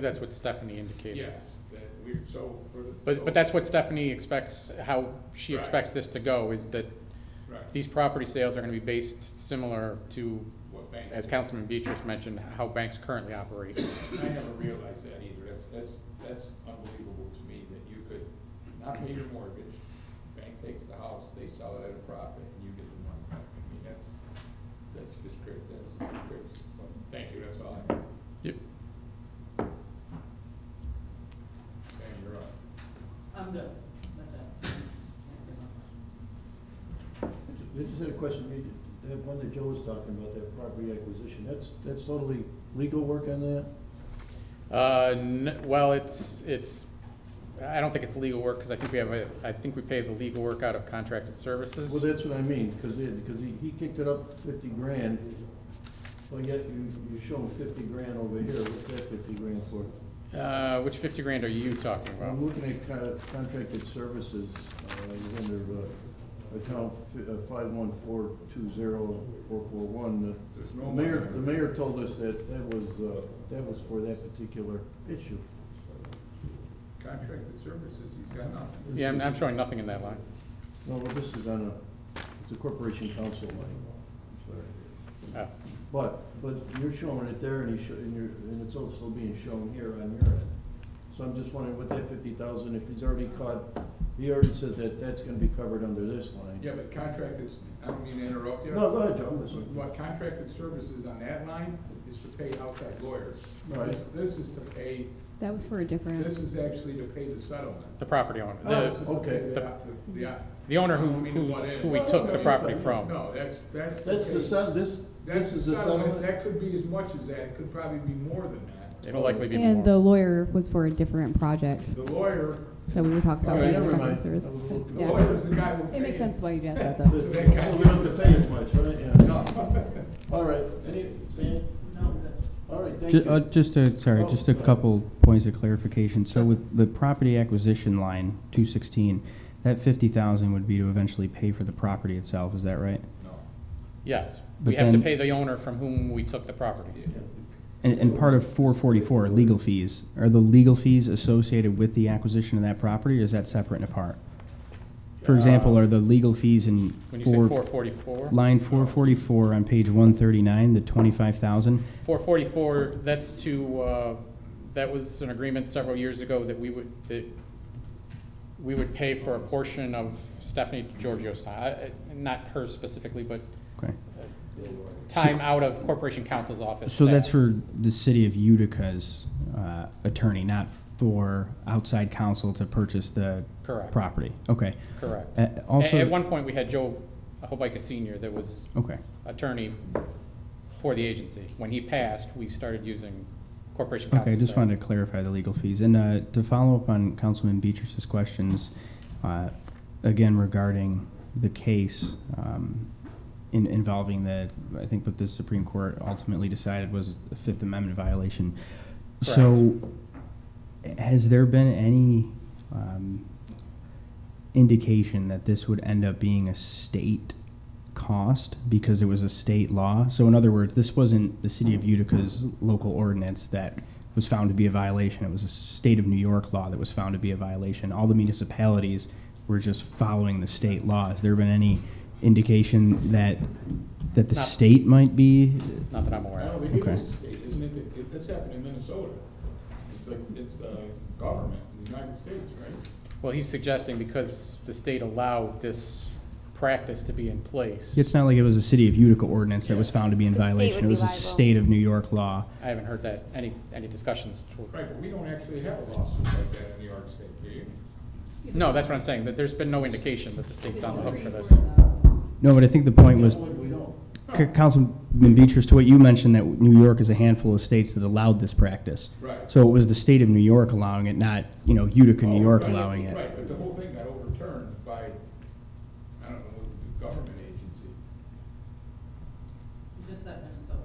That's what Stephanie indicated. Yes, that we, so for the. But, but that's what Stephanie expects, how she Right. expects this to go, is that Right, these property sales are gonna be based similar to, what banks. as Councilman Beatrice mentioned, how banks currently operate. I never realized that either. That's, that's, that's unbelievable to me that you could not pay your mortgage, bank takes the house, they sell it at a profit, and you get the money back. I mean, that's, that's just great, that's great. Well, Thank you, that's all I have. Yep. Sam, you're up. I'm good, that's it. I just had a question, You- that one that Joe was talking about, that property acquisition, that's, that's totally legal work on that? Uh, n- well, it's, it's, I don't think it's legal work, cause I think we have a, I think we pay the legal work out of contracted services. Well, that's what I mean, because, because he, he kicked it up fifty grand, well, yet you, you show him fifty grand over here, what's that fifty grand for? Uh, which fifty grand are you talking I'm about? looking at con- contracted services, uh, you're under, uh, account five one four two zero four four one. There's no The mayor, money. the mayor told us that that was, uh, that was for that particular issue. Contracted services, he's got nothing. Yeah, I'm, I'm showing nothing in that line. No, well, this is on a, it's a corporation council line. Oh, But, but you're showing it there and you show, and you're, and it's also being shown here on your end. So I'm just wondering what that fifty thousand, if he's already caught, he already said that that's gonna be covered under this line. Yeah, but contracted, I don't mean to interrupt you. No, go ahead, Joe, So listen. What contracted services on that line is to pay outside lawyers. Right. This, this is to pay, That was for a different. this is actually to pay the settlement. The property owner. Oh, The- This is to okay. pay The- The, op- the, op- The owner who, I mean, who, what if- who we took the property from. No, that's, that's. to That's the pay- set, this, That's this the is the settlement, settlement? that could be as much as that, it could probably be more than that. It'll likely be And the more. lawyer was for a different project The lawyer, that we were talking about. All right, for the never mind. contract service. I was a little- the Yeah. lawyer's the guy who It makes paid. sense why you'd ask that, So though. we don't have to say as much, right? Yeah. No. All right, any, Sam? No, I'm good. All right, thank Ju- uh, you. Just a, sorry, Oh, just a go ahead. couple points of clarification. So with the property acquisition line, 216, that 50,000 would be to eventually pay for the property itself, is that right? No. Yes, But we have to then- pay the owner from whom we took the property. And, and part of 444, are legal fees, are the legal fees associated with the acquisition of that property, or is that separate and apart? For example, Uh, are the legal fees in When you say four four, forty-four? line 444 on page 139, the 25,000? Four forty-four, that's to, uh, that was an agreement several years ago that we would, that we would pay for a portion of Stephanie Giorgio's time, not her specifically, but Okay. time out of Corporation Counsel's office. So that's staff. for the city of Utica's uh, attorney, not for outside counsel to purchase the Correct. property? Okay. Correct. Uh, At, at Also, one point, we had Joe Hobica Senior that was okay, attorney for the agency. When he passed, we started using Corporation Counsel's. okay, I just staff. wanted to clarify the legal fees. And uh, to follow up on Councilman Beatrice's questions, uh, again regarding the case um, in- involving the, I think what the Supreme Court ultimately decided was a Fifth Amendment violation. So has there been any um, indication that this would end up being a state cost because it was a state law? So in other words, this wasn't the city of Utica's local ordinance that was found to be a violation. It was a state of New York law that was found to be a violation. All the municipalities were just following the state law. Has there been any indication that that the Not- state might be? Not that I'm aware No, of. they do Okay. as a state, isn't it, It- it, that's happened in Minnesota. It's like, it's the government in the United States, right? Well, he's suggesting because the state allowed this practice to be in place. It's not like it was a city of Utica ordinance that was found to be in The state would violation. It be was a liable. state of New York law. I haven't heard that, any, any discussions. to- Right, but we don't actually have a lawsuit like that in New York State, do you? No, that's what I'm saying, that there's been no indication that the state's on the hook for this. No, but I think the point was, What we don't. C- Councilman Beatrice, to what you mentioned, that New York is a handful of states that allowed this practice. Right. So it was the state of New York allowing it, not, you know, Utica, New Oh, York right, allowing it. Right, but the whole thing got overturned by, I don't know, what government agency. You just said Minnesota.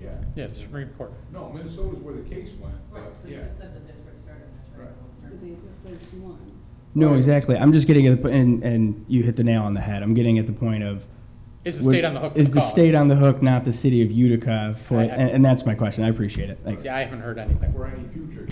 Yeah. Yeah, the Supreme Court. No, Minnesota's where the case went, but, Right, so you yeah. just said the district started, that's right. Right. No, exactly. I'm just getting at the, po- and, and you hit the nail on the head. I'm getting at the point of, Is the state on the hook for Is the the cost? state on the hook, not the city of Utica for, I- I- it? and, and that's my question. I appreciate it. Thanks. Yeah, I haven't heard anything. For any future